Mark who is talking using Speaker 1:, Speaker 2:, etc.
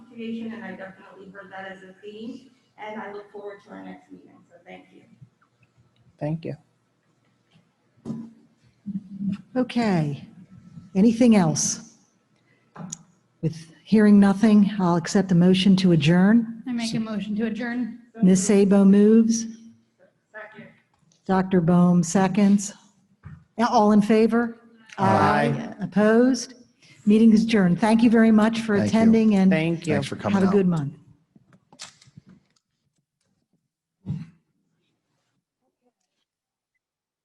Speaker 1: education, and I definitely heard that as a theme. And I look forward to our next meeting, so thank you.
Speaker 2: Thank you.
Speaker 3: Okay. Anything else? With hearing nothing, I'll accept the motion to adjourn.
Speaker 4: I make a motion to adjourn.
Speaker 3: Ms. Sabo moves.
Speaker 1: Second.
Speaker 3: Dr. Bohm seconds. All in favor?
Speaker 2: Aye.
Speaker 3: Opposed? Meeting is adjourned. Thank you very much for
Speaker 5: Thank you.
Speaker 3: attending and
Speaker 2: Thank you.
Speaker 5: Thanks for coming
Speaker 3: have a
Speaker 5: out.
Speaker 3: good month.